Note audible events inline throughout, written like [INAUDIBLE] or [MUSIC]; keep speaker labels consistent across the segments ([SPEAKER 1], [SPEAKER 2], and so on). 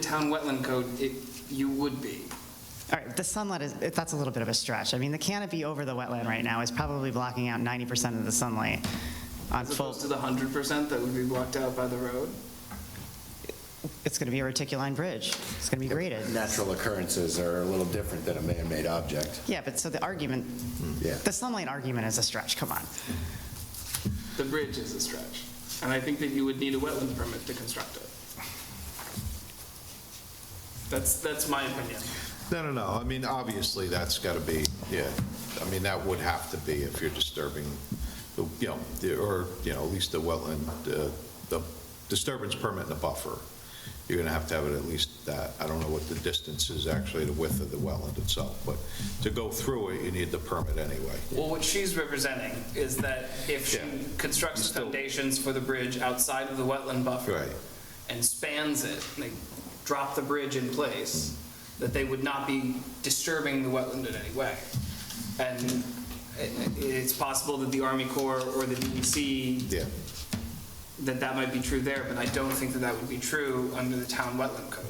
[SPEAKER 1] town wetland code, it, you would be.
[SPEAKER 2] All right, the sunlight is, that's a little bit of a stretch. I mean, the canopy over the wetland right now is probably blocking out 90% of the sunlight on
[SPEAKER 1] As
[SPEAKER 2] full,
[SPEAKER 1] opposed to the hundred percent that would be blocked out by the road?
[SPEAKER 2] it's going to be a reticuline bridge. It's going to be graded.
[SPEAKER 3] Natural occurrences are a little different than a man-made object.
[SPEAKER 2] Yeah, but so the argument,
[SPEAKER 3] Yeah.
[SPEAKER 2] the sunlight argument is a stretch, come on.
[SPEAKER 1] The bridge is a stretch. And I think that you would need a wetlands permit to construct it. That's, that's my opinion.
[SPEAKER 4] No, no, no, I mean, obviously, that's got to be, yeah, I mean, that would have to be if you're disturbing, the you know, the- or, you know, at least the wetland, uh, the disturbance permit and the buffer, you're going to have to have it at least that, I don't know what the distance is actually, the width of the wetland itself, but to go through it, you need the permit anyway.
[SPEAKER 1] Well, what she's representing is that if she
[SPEAKER 4] Yeah.
[SPEAKER 1] constructs
[SPEAKER 4] You
[SPEAKER 1] the
[SPEAKER 4] still-
[SPEAKER 1] foundations for the bridge outside of the wetland buffer.
[SPEAKER 4] Right.
[SPEAKER 1] And spans it, and they drop the bridge in place, that they would not be disturbing the wetland in any way. And it- it's possible that the Army Corps or the DEC
[SPEAKER 4] Yeah,
[SPEAKER 1] that that might be true there, but I don't think that that would be true under the town wetland code.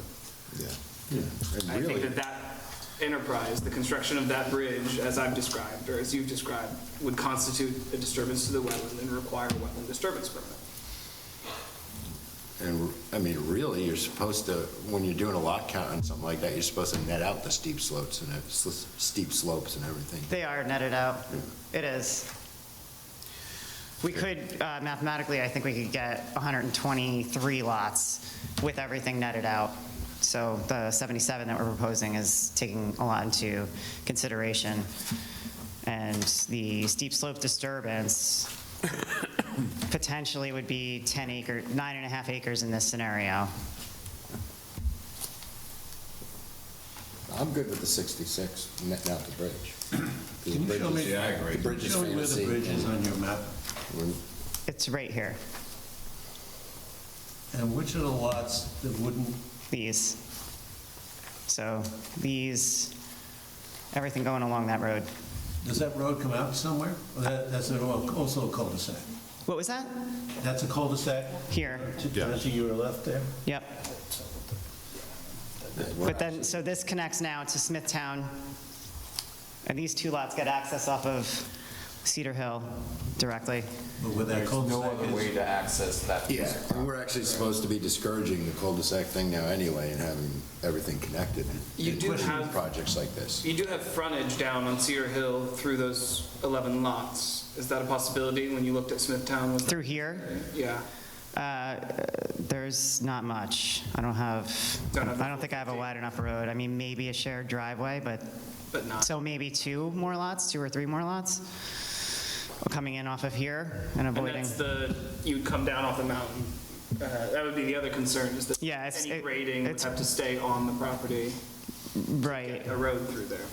[SPEAKER 4] yeah.
[SPEAKER 3] And
[SPEAKER 1] I think
[SPEAKER 3] really,
[SPEAKER 1] that that enterprise, the construction of that bridge, as I've described, or as you've described, would constitute a disturbance to the wetland and require a wetland disturbance permit.
[SPEAKER 3] and, I mean, really, you're supposed to, when you're doing a lot count on something like that, you're supposed to net out the steep slopes and, ev- s- steep slopes and everything.
[SPEAKER 2] They are netted out. It is. We could, uh, mathematically, I think we could get 123 lots with everything netted out. So the 77 that we're proposing is taking a lot into consideration. And the steep slope disturbance [COUGHS] potentially would be 10 acre, nine and a half acres in this scenario.
[SPEAKER 3] I'm good with the 66, netting out the bridge.
[SPEAKER 5] Can you show me?
[SPEAKER 3] The bridge is
[SPEAKER 5] Show me where the
[SPEAKER 3] fantasy,
[SPEAKER 5] bridge is
[SPEAKER 3] and
[SPEAKER 5] on your map,
[SPEAKER 3] we're-
[SPEAKER 2] It's right here,
[SPEAKER 5] and which of the lots that wouldn't,
[SPEAKER 2] these. So these, everything going along that road.
[SPEAKER 5] does that road come out somewhere? Or that- That's an al- also a cul-de-sac.
[SPEAKER 2] What was that?
[SPEAKER 5] That's a cul-de-sac?
[SPEAKER 2] Here.
[SPEAKER 5] To
[SPEAKER 4] Yeah.
[SPEAKER 5] to your left there?
[SPEAKER 2] Yep.
[SPEAKER 3] we're
[SPEAKER 2] But then, so this connects now to Smithtown, and these two lots get access off of Cedar Hill directly.
[SPEAKER 5] But where that cul-de-sac is?
[SPEAKER 6] to access that.
[SPEAKER 3] Yeah, and we're actually supposed to be discouraging the cul-de-sac thing now anyway and having everything connected.
[SPEAKER 1] You
[SPEAKER 3] in
[SPEAKER 1] do have-
[SPEAKER 3] Projects like this.
[SPEAKER 1] You do have frontage down on Cedar Hill through those 11 lots. Is that a possibility when you looked at Smithtown? Was that-
[SPEAKER 2] Through here,
[SPEAKER 1] Yeah,
[SPEAKER 2] uh, there's not much. I don't have,
[SPEAKER 1] Don't have the
[SPEAKER 2] I don't think I have a
[SPEAKER 1] 450.
[SPEAKER 2] wide enough road. I mean, maybe a shared driveway, but,
[SPEAKER 1] but not.
[SPEAKER 2] so maybe two more lots, two or three more lots, coming in off of here and
[SPEAKER 1] And
[SPEAKER 2] avoiding.
[SPEAKER 1] that's the, you'd come down off the mountain. Uh, That would be the other concern, is that
[SPEAKER 2] Yeah, it's-
[SPEAKER 1] any
[SPEAKER 2] it-
[SPEAKER 1] grading would
[SPEAKER 2] it's-
[SPEAKER 1] have to stay on the property,
[SPEAKER 2] Right.
[SPEAKER 1] a road through there.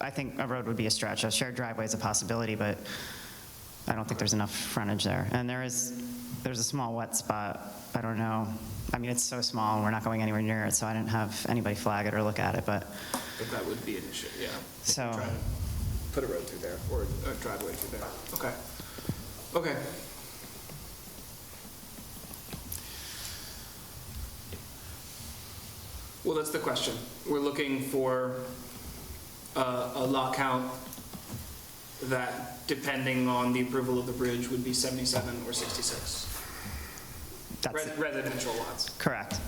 [SPEAKER 2] I think a road would be a stretch. A shared driveway is a possibility, but I don't think there's enough frontage there. And there is, there's a small wet spot. I don't know. I mean, it's so small, and we're not going anywhere near it, so I didn't have anybody flag it or look at it, but,
[SPEAKER 1] But that would be an issue, yeah.
[SPEAKER 2] so,
[SPEAKER 1] Try to Put a road through there, or a driveway through there. Okay. Okay. Well, that's the question. We're looking for uh, a, a lot count that, depending on the approval of the bridge, would be 77 or 66.
[SPEAKER 2] that's
[SPEAKER 1] Res- Residential lots.
[SPEAKER 2] correct.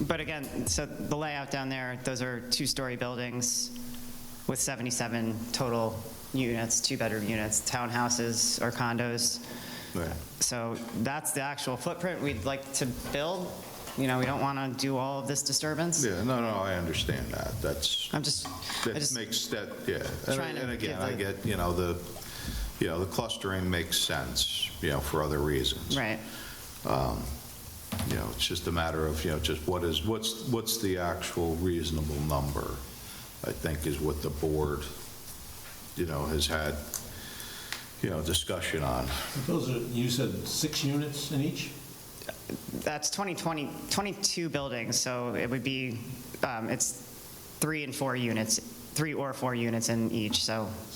[SPEAKER 2] But again, so the layout down there, those are two-story buildings with 77 total units, two-bedroom units, townhouses or condos. So that's the actual footprint we'd like to build. You know, we don't want to do all of this disturbance.
[SPEAKER 4] Yeah, no, no, I understand that, that's,
[SPEAKER 2] I'm just, I
[SPEAKER 4] That
[SPEAKER 2] just,
[SPEAKER 4] makes that, yeah. And-
[SPEAKER 2] trying to
[SPEAKER 4] And again,
[SPEAKER 2] give
[SPEAKER 4] I
[SPEAKER 2] the-
[SPEAKER 4] get, you know, the, you know, the clustering makes sense, you know, for other reasons.
[SPEAKER 2] right,
[SPEAKER 4] You know, it's just a matter of, you know, just what is, what's, what's the actual reasonable number, I think, is what the board, you know, has had, you know, discussion on.
[SPEAKER 5] Those are, you said six units in each?
[SPEAKER 2] that's 2020, 22 buildings, so it would be, um, it's three and four units, three or four units in each, so